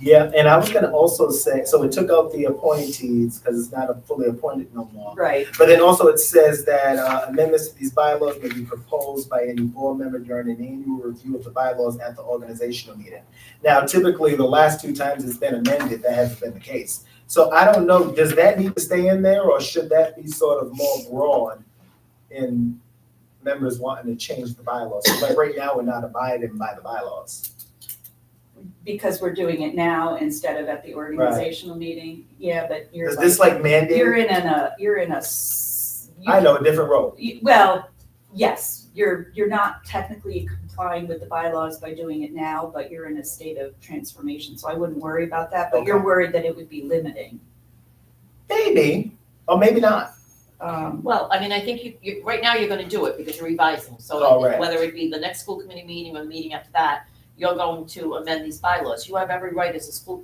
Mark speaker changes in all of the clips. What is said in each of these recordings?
Speaker 1: Yeah, and I was gonna also say, so it took out the appointees, because it's not a fully appointed no more.
Speaker 2: Right,
Speaker 1: But then also it says that uh, amendments to these bylaws may be proposed by any board member during an annual review of the bylaws at the organizational meeting. Now typically, the last two times it's been amended, that hasn't been the case. So I don't know, does that need to stay in there, or should that be sort of more broad in members wanting to change the bylaws? So, Like right now, we're not abiding by the bylaws.
Speaker 2: because we're doing it now instead of at the organizational meeting. Yeah, but you're
Speaker 1: Is
Speaker 2: like.
Speaker 1: this like mandated?
Speaker 2: You're in an, a, you're in a. s- you-
Speaker 1: I know, a different role.
Speaker 2: you- Well, yes, you're, you're not technically complying with the bylaws by doing it now, but you're in a state of transformation, so I wouldn't worry about that, but you're
Speaker 1: Okay.
Speaker 2: worried that it would be limiting.
Speaker 1: Maybe, or maybe not.
Speaker 2: Um,
Speaker 3: Well, I mean, I think you, you, right now you're gonna do it because you're revising, so
Speaker 1: All
Speaker 3: I think
Speaker 1: Oh, right.
Speaker 3: whether it be the next school committee meeting or the meeting after that, you're going to amend these bylaws, you have every right as a school.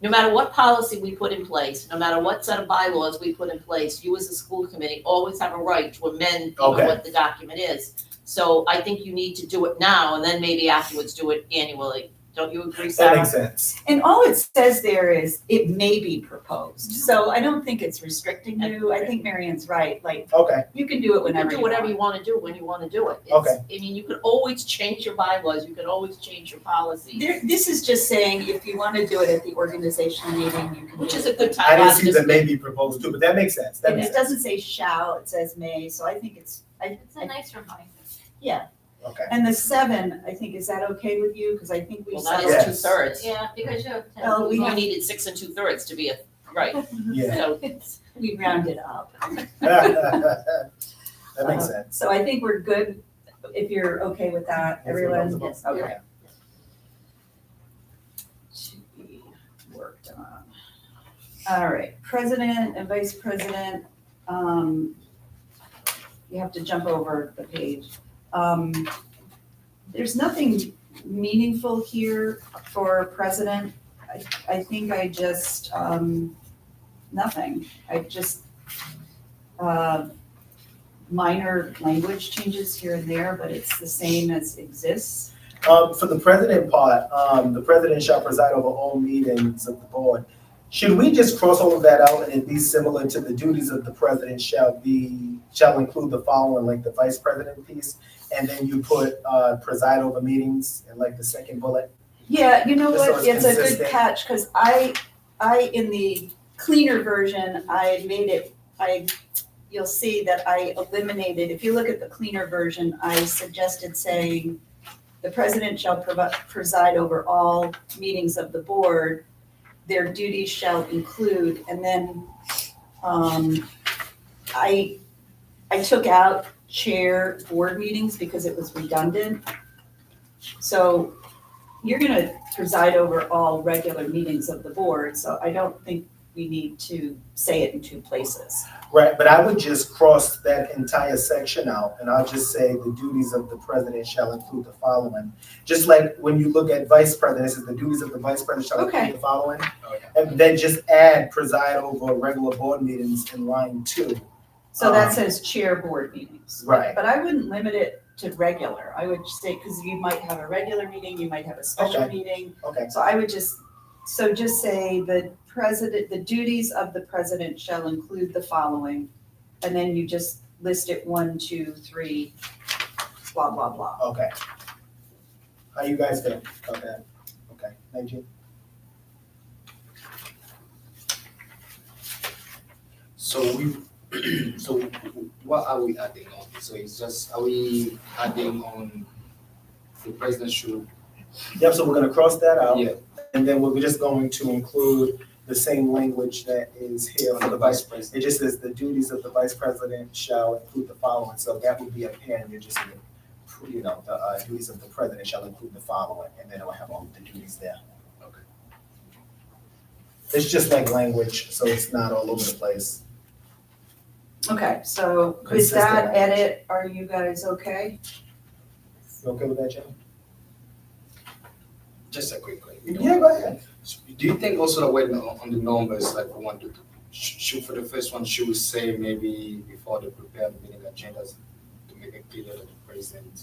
Speaker 3: No matter what policy we put in place, no matter what set of bylaws we put in place, you as a school committee always have a right to amend you know,
Speaker 1: Okay.
Speaker 3: what the document is. So I think you need to do it now and then maybe afterwards do it annually, don't you agree,
Speaker 1: That
Speaker 3: Sarah?
Speaker 1: makes sense.
Speaker 2: and all it says there is, it may be proposed, so I don't think it's restricting you, I think Marion's right, like,
Speaker 1: Okay,
Speaker 2: you can do it
Speaker 3: You can
Speaker 2: whenever
Speaker 3: do
Speaker 2: you
Speaker 3: whatever you
Speaker 2: want.
Speaker 3: wanna do when you wanna do it. It's-
Speaker 1: Okay.
Speaker 3: I mean, you can always change your bylaws, you can always change your policies.
Speaker 2: There, this is just saying, if you wanna do it at the organizational meeting, you can.
Speaker 3: Which
Speaker 2: do
Speaker 3: is
Speaker 2: it.
Speaker 3: a good time.
Speaker 1: I didn't
Speaker 3: I've
Speaker 1: see
Speaker 3: just
Speaker 1: the maybe proposed too, but that makes sense. That
Speaker 2: And
Speaker 1: makes
Speaker 2: it
Speaker 1: sense.
Speaker 2: doesn't say shall, it says may, so I think it's, I,
Speaker 4: It's a nice reminder.
Speaker 1: Okay.
Speaker 2: And the seven, I think, is that okay with you? Because I think we
Speaker 3: Well,
Speaker 2: settled.
Speaker 3: that
Speaker 1: Yeah.
Speaker 3: is two thirds.
Speaker 4: Yeah, because you have ten.
Speaker 2: Well, we
Speaker 3: Oh, We
Speaker 2: have-
Speaker 3: needed six and two thirds to be a, right,
Speaker 1: Yeah.
Speaker 3: so,
Speaker 2: We rounded up.
Speaker 1: That makes
Speaker 2: Uh,
Speaker 1: sense.
Speaker 2: So I think we're good, if you're okay with that, everyone,
Speaker 1: Everyone
Speaker 4: else?
Speaker 2: okay. To be worked on. All right, president and vice president, um, you have to jump over the page. Um, there's nothing meaningful here for president. I, I think I just, um, nothing. I just, uh, minor language changes here and there, but it's the same as exists.
Speaker 1: Um, for the president part, um, the president shall preside over all meetings of the board. Should we just cross all of that out and it be similar to the duties of the president shall be, shall include the following, like the vice president piece? And then you put, uh, preside over meetings and like the second bullet?
Speaker 2: Yeah, you know
Speaker 1: Just so
Speaker 2: what,
Speaker 1: it's
Speaker 2: it's a good
Speaker 1: consistent.
Speaker 2: catch, because I, I, in the cleaner version, I made it, I, you'll see that I eliminated, if you look at the cleaner version, I suggested saying, the president shall provi- preside over all meetings of the board, their duties shall include, and then, um, I, I took out chair board meetings because it was redundant. So you're gonna preside over all regular meetings of the board, so I don't think we need to say it in two places.
Speaker 1: Right, but I would just cross that entire section out and I'll just say the duties of the president shall include the following. Just like when you look at vice president, it says the duties of the vice president shall
Speaker 2: Okay.
Speaker 1: include the following. And then just add preside over regular board meetings in line two.
Speaker 2: So that
Speaker 1: Um,
Speaker 2: says chair board meetings.
Speaker 1: Right,
Speaker 2: But I wouldn't limit it to regular. I would say, because you might have a regular meeting, you might have a special
Speaker 1: Okay.
Speaker 2: meeting.
Speaker 1: okay,
Speaker 2: So I would just, so just say the president, the duties of the president shall include the following. And then you just list it one, two, three, blah, blah, blah.
Speaker 1: okay. How you guys feel about that? Okay, thank you.
Speaker 5: So we, so what are we adding on? So it's just, are we adding on the president should,
Speaker 1: Yep, so we're gonna cross that out.
Speaker 5: yeah,
Speaker 1: And then we're just going to include the same language that is here for
Speaker 5: on
Speaker 1: the
Speaker 5: the
Speaker 1: vice
Speaker 5: vice president?
Speaker 1: It just says the duties of the vice president shall include the following, so that would be a pen, you just, you know, the uh, duties of the president shall include the following, and then it'll have all the duties there.
Speaker 5: Okay.
Speaker 1: It's just like language, so it's not all over the place.
Speaker 2: Okay, so with
Speaker 1: Consistent
Speaker 2: that
Speaker 1: language.
Speaker 2: edit, are you guys okay?
Speaker 1: You okay with that, Jim?
Speaker 5: Just a quick one. you know.
Speaker 1: Yeah, go ahead.
Speaker 5: So Do you think also that when uh, on on the numbers, like we want to, sh- should, for the first one, should we say maybe before they prepare the meeting agendas to make it clear that the president,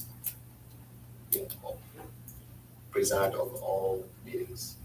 Speaker 5: you know, or preside over all meetings?